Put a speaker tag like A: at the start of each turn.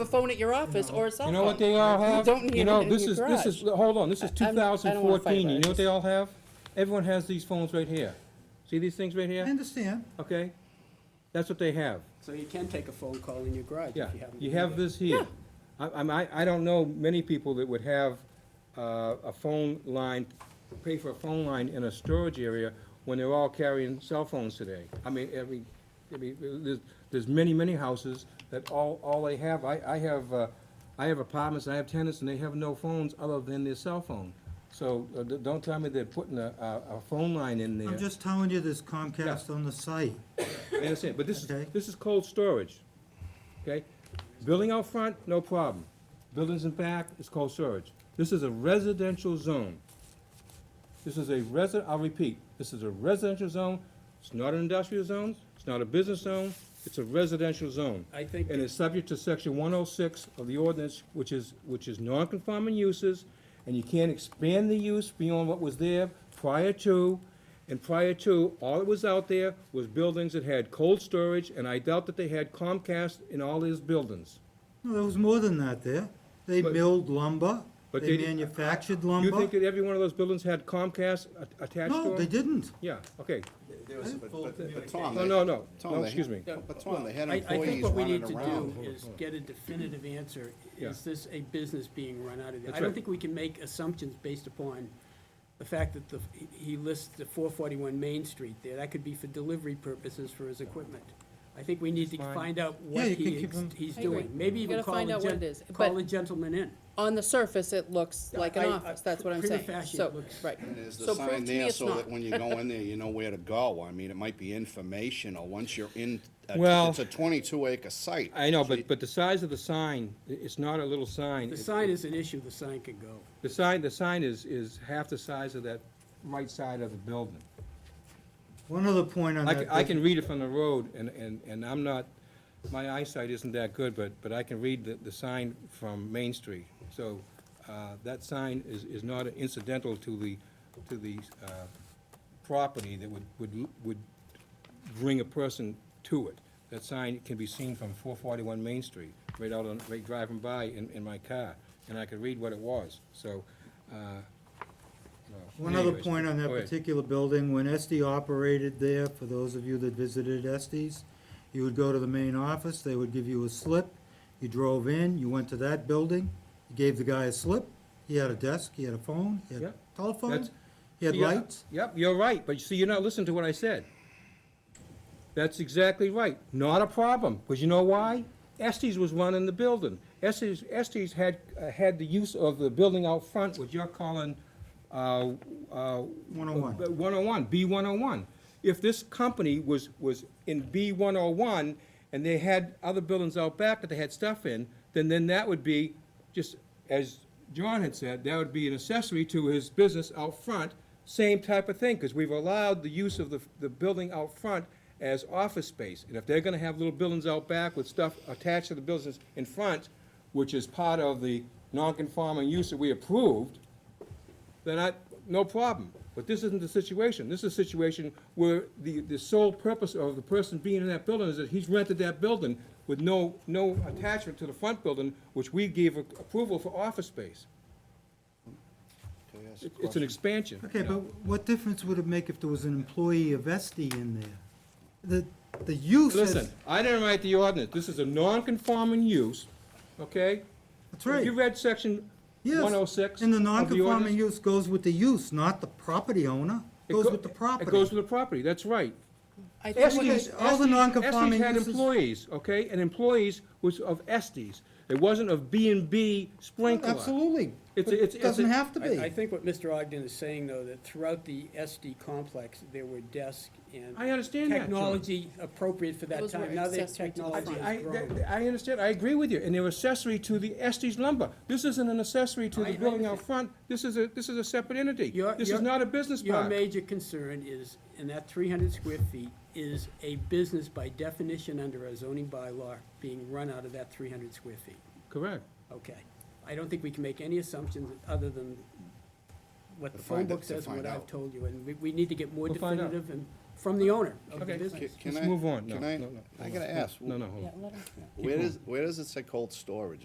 A: a phone at your office or a cell
B: You
A: phone.
B: know what they all have?
A: don't need
B: You know,
A: it in
B: this
A: your
B: is, this is, hold on, this is
A: I- I'm- I
B: two
A: don't wanna fight
B: thousand fourteen, you
A: about
B: know
A: this.
B: what they all have? Everyone has these phones right here. See these things right
C: I
B: here?
C: understand.
A: Mm.
B: Okay? That's what they have,
D: So you can take a phone call in your garage if you
B: yeah.
D: have. them
B: You
D: here.
B: have this here. I, I'm- I, I don't know many people that would have, uh, a phone line, pay for a phone line in a storage area when they're all carrying cell phones today. I mean, every, I mean, there's, there's many, many houses that all, all they have, I, I have, uh, I have apartments, I have tenants, and they have no phones other than their cell phone. So, uh, d- don't tell me they're putting a, a, a phone line in there.
C: I'm just telling you there's Comcast on the site.
B: I understand, but this is,
C: Okay.
B: this is cold storage, okay? Building out front, no problem. Buildings in back is cold storage. This is a residential zone. This is a resi, I'll repeat, this is a residential zone. It's not an industrial zone, it's not a business zone, it's a residential zone.
D: I think
B: And it's subject to section one oh six of the ordinance, which is, which is non-conforming uses, and you can't expand the use beyond what was there prior to, and prior to, all that was out there was buildings that had cold storage, and I doubt that they had Comcast in all these buildings.
C: No, there was more than that there. They
B: But-
C: milled lumber,
B: but
C: they
B: they-
C: manufactured
B: You think
C: lumber.
B: that every one of those buildings had Comcast a- attached to
C: No, they
B: them?
C: didn't.
B: Yeah, okay,
E: There was, but, but, but Tom.
B: no,
E: they-
B: no, no,
E: Tom,
B: no,
E: they-
B: excuse me.
D: Yeah,
E: But Tom, they had
D: I, I think
E: employees
D: what we
E: running
D: need to do
E: around.
D: is get a definitive answer.
B: Yeah.
D: Is this a business being run out of there?
B: That's
D: I don't
B: right.
D: think we can make assumptions based upon the fact that the, he- he lists the four forty-one Main Street there. That could be for delivery purposes for his equipment. I think we need to
B: Fine.
D: find out what
C: Yeah, you can
D: he,
C: keep
D: ex-
C: him-
D: he's
A: I agree.
D: doing. Maybe
A: You
D: even
A: gotta
D: call
A: find
D: a
A: out what it
D: gen-
A: is,
D: call
A: but-
D: a gentleman in.
A: On the surface, it looks like
D: I-
A: an
D: I-
A: office, that's what I'm
D: prima
A: saying.
D: facie, it
A: So,
D: looks-
A: right.
E: And There's the
A: So prove
E: sign
A: to me
E: there
A: it's
E: so that
A: not.
E: when you go in there, you know where to go. I mean, it might be informational. Once you're in, a-
B: Well-
E: it's a twenty-two acre site.
B: I know, but, but the size of the sign, i- it's not a little sign.
D: The
B: It's-
D: sign is an issue, the sign could go.
B: The sign, the sign is, is half the size of that right side of the building.
C: One other point on
B: I
C: that.
B: can, I
C: Dick.
B: can read it from the road, and, and, and I'm not, my eyesight isn't that good, but, but I can read the, the sign from Main Street. So, uh, that sign is, is not incidental to the, to the, uh, property that would, would, would bring a person to it. That sign can be seen from four forty-one Main Street, right out on, right driving by in, in my car, and I could read what it was, so, uh, no,
C: One other
B: anyways.
C: point on that
B: Go ahead.
C: particular building, when SD operated there, for those of you that visited SD's, you would go to the main office, they would give you a slip, you drove in, you went to that building, you gave the guy a slip, he had a desk, he had a phone, he had a
B: Yep.
C: telephone,
B: That's-
C: he had
B: Yeah,
C: lights.
B: Yep, you're right, but you see, you're not listening to what I said. That's exactly right. Not a problem, because you know why? Estes was running the building. Estes, Estes had, uh, had the use of the building out front, what you're calling, uh, uh.
C: 101.
B: uh, 101, B one oh one. If this company was, was in B one oh one, and they had other buildings out back that they had stuff in, then, then that would be, just as John had said, that would be an accessory to his business out front, same type of thing, because we've allowed the use of the, the building out front as office space. And if they're gonna have little buildings out back with stuff attached to the buildings in front, which is part of the non-conforming use that we approved, then I, no problem. But this isn't the situation. This is a situation where the, the sole purpose of the person being in that building is that he's rented that building with no, no attachment to the front building, which we gave a- approval for office space.
E: Can I ask
B: It- It's
E: a
B: an
E: question?
B: expansion.
C: Okay, but what difference would it make if there was an employee of SD in there? The, the use is,
B: Listen, I didn't write the ordinance. This is a non-conforming use, okay?
C: that's
B: Have you
C: right,
B: read section
C: yes.
B: one oh six?
C: And the non-conforming use goes with the use, not the property owner, goes with the property.
B: It goes with the property, that's right.
A: I think we-
B: Estes,
C: all the
B: Estes-
C: non-conforming
B: Estes had
C: uses-
B: employees, okay, and employees was of Estes. It wasn't of B and B sprinkler.
C: Oh, Absolutely.
B: It's
C: But
B: a- it's-
C: It
B: it's
C: doesn't
B: a-
C: have to
D: I, I
C: be.
D: think what Mr. Ogden is saying, though, that throughout the SD complex, there were desks and.
B: I understand that, John.
D: Technology appropriate for that
A: Those were
D: time. Now that
A: accessory to the
D: technology
A: front.
B: I,
D: has grown.
B: that- I understand, I agree with you, and they're accessory to the Estes lumber. This isn't an accessory to
D: I- I
B: the building out
D: understand.
B: front, this is a, this is a separate entity.
D: Your-
B: This
D: your-
B: is not a business
D: Your
B: park.
D: major concern is, and that three hundred square feet is a business by definition under our zoning bylaw being run out of that three hundred square feet.
B: Correct.
D: Okay. I don't think we can make any assumptions other than what the
E: To
D: phone
E: find out-
D: book
E: to
D: says and what
E: find
D: I've
E: out.
D: told you, and we, we need to get more
B: We'll find out.
D: definitive and from the owner of the
B: Okay.
D: business.
E: Can
B: Let's
E: I-
B: move on. No,
E: Can I,
B: no, no,
E: I
B: no,
E: gotta
B: no,
E: ask,
B: No, no, hold on.
A: Yeah, let him.
E: where does, where does it say cold storage?